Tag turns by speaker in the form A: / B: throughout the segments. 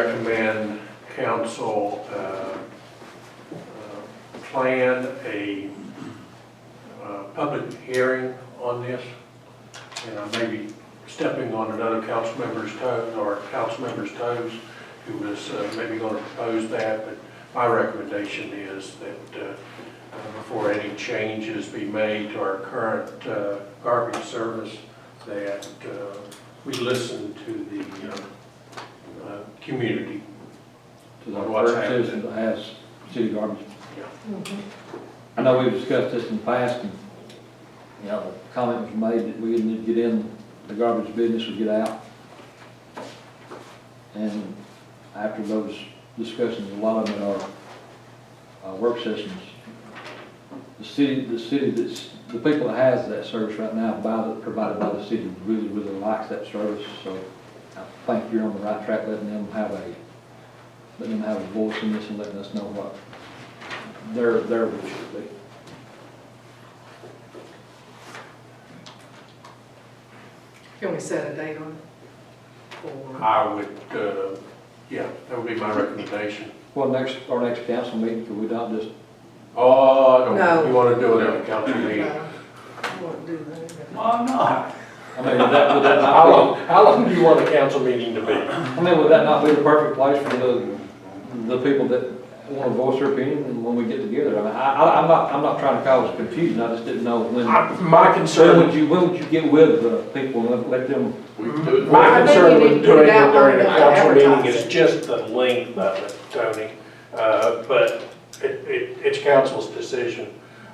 A: recommend council uh, uh, plan a uh, public hearing on this. And I may be stepping on another council member's toe, or council member's toes, who was uh, maybe going to propose that, but my recommendation is that uh, uh, before any changes be made to our current uh, garbage service, that uh, we listen to the uh, uh, community.
B: to the
A: What's
B: first
A: happening?
B: citizen to ask city garbage.
A: Yeah.
B: I know we've discussed this in the past, and, you know, the comment was made that we didn't need to get in, the garbage business would get out. And after those discussions, a lot of them in our, uh, work sessions, the city, the city that's, the people that has that service right now, by the, provided by the city, really, really likes that service, so I think you're on the right track, letting them have a, letting them have a voice in this and letting us know what their, their wish would be.
C: Can we set a date on it? Or,
A: I would, uh, yeah, that would be my recommendation.
B: Well, next, our next council meeting, could we not just,
A: Oh, I don't,
C: No.
A: you want to do it at a council meeting?
C: no, I won't do that.
D: I'm not.
B: I mean, would that, would that
A: How long,
B: not
A: how long do you want a council meeting to be?
B: be, I mean, would that not be the perfect place for the, the people that want to voice their opinion and when we get together? I mean, I, I, I'm not, I'm not trying to cause confusion, I just didn't know when,
A: I- My
B: when
A: concern,
B: would you, when would you get with the people and let them
A: my
C: I think
A: concern
C: you
A: with
C: need to put
A: doing
C: it
A: it
C: out
A: during a
C: on the
A: council meeting is
C: advertising.
A: just the length of it, Tony. Uh, But it, it, it's council's decision.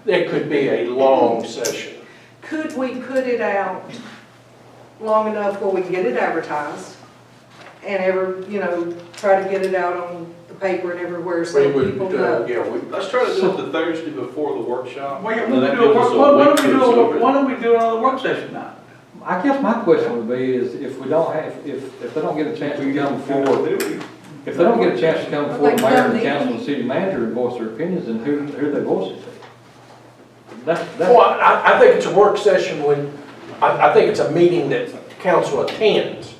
A: It could be a long session.
C: Could we put it out long enough where we can get it advertised? And ever, you know, try to get it out on the paper and everywhere
A: We
C: so
A: would,
C: people
A: uh,
C: know?
A: yeah, we,
E: Let's try to do it the Thursday before the workshop.
D: Why
B: No, that
D: don't we do a
B: gives us
D: work-
B: a
D: why- why
B: week
D: don't we
B: to
D: do, a
B: absorb
D: work-
B: it.
D: why don't we do another work session now?
B: I guess my question would be is if we don't have, if, if they don't get a chance to come forward, if they don't get a chance to come forward, mayor and council and city manager and voice their opinions, then who, who they voice it to? That's,
A: Well,
B: that's,
A: I, I think it's a work session when, I, I think it's a meeting that council attends.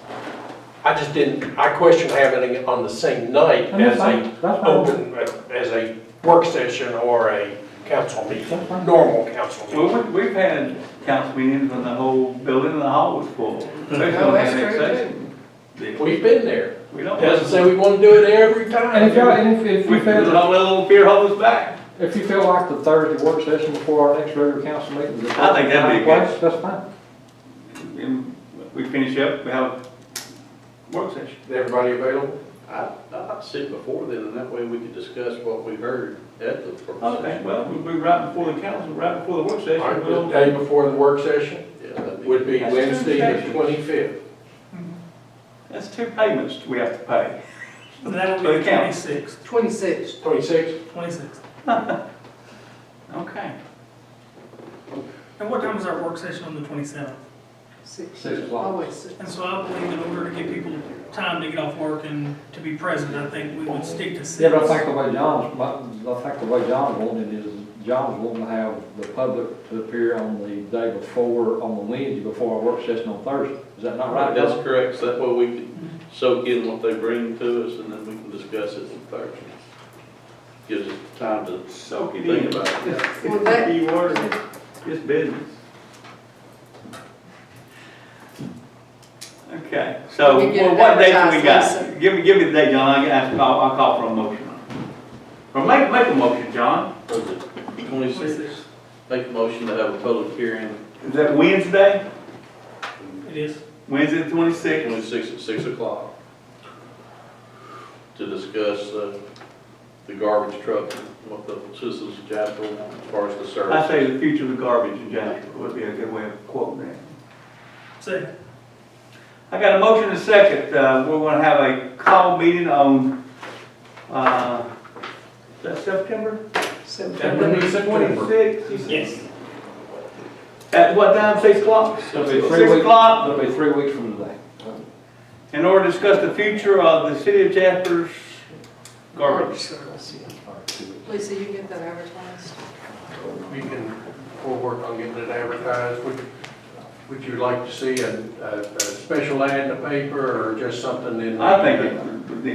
A: I just didn't, I question having it on the same night
B: and
A: as
B: that's fine,
A: a
B: that's fine.
A: open, as a work session or a council meeting, normal council meeting.
D: Well, we, we've had council meetings when the whole building and the hall was full.
C: Oh, that's true,
D: We,
A: We've been there.
D: we don't.
A: Doesn't say we want to do it every
B: And if y'all,
A: time.
B: and if, if
D: We,
B: you
D: we don't
B: feel,
D: let little beer hold us back.
B: if you feel like the Thursday work session before our next regular council meeting is. the
D: I think that'd be
B: place, That's fine.
D: And We finish up, we have a work session.
A: Is Everybody available?
E: I, I'd sit before then, and that way we could discuss what we heard at the first.
D: Okay, well, we'll be right before the council, right before the work
A: All right,
D: session,
A: the
D: we'll.
A: day before the work session
E: Yeah, that'd be-
A: would be
D: That's
A: Wednesday the
D: Tuesday.
A: twenty-fifth.
D: That's two payments we have to pay.
F: That'll
D: For
F: be
D: the count.
F: twenty-six,
C: Twenty-six.
A: Twenty-sixth?
F: twenty-six.
D: Okay.
F: And what time is our work session on the twenty-seventh?
B: Six o'clock.
C: Always six.
F: And so I believe in order to give people time to get off work and to be present, I think we would stick to six.
B: Yeah, but I think the way John's, I think the way John's wanting it is, John's wanting to have the public to appear on the day before, on the Wednesday before our work session on Thursday. Is that not right, John?
E: That's correct, so that way we can soak in what they bring to us, and then we can discuss it on Thursday. Gives us time to
D: Soak it
E: think
D: in.
E: about it.
C: Well, that-
D: Key word, it's business. Okay, so
C: We get
D: well,
C: it
D: what dates we
C: advertised,
D: got?
C: Lisa.
D: Give me, give me the date, John, I guess, I'll, I'll call for a motion. Or make, make a motion, John.
E: For the Twenty-six, make a motion to have a public hearing,
D: Is that Wednesday?
F: It is.
D: Wednesday the twenty-sixth?
E: twenty-six at six o'clock, to discuss, uh, the garbage truck, and what the citizens of Jasper want as far as the service.
D: I say the future of the garbage in Jasper would be a good way of quoting that.
F: Second.
D: I got a motion and a second, uh, we're gonna have a call meeting on, uh, is that September?
A: That would be September.
D: Twenty-sixth?
F: Yes.
D: At what time, six o'clock?
B: It'll be three
D: Six
B: weeks,
D: o'clock,
B: it'll be three weeks from today.
D: in order to discuss the future of the city of Jasper's garbage.
C: Lisa, you get that advertised?
A: We can, we'll work on getting it advertised. Would, would you like to see a, a, a special ad in the paper or just something in? the-
D: I think it would be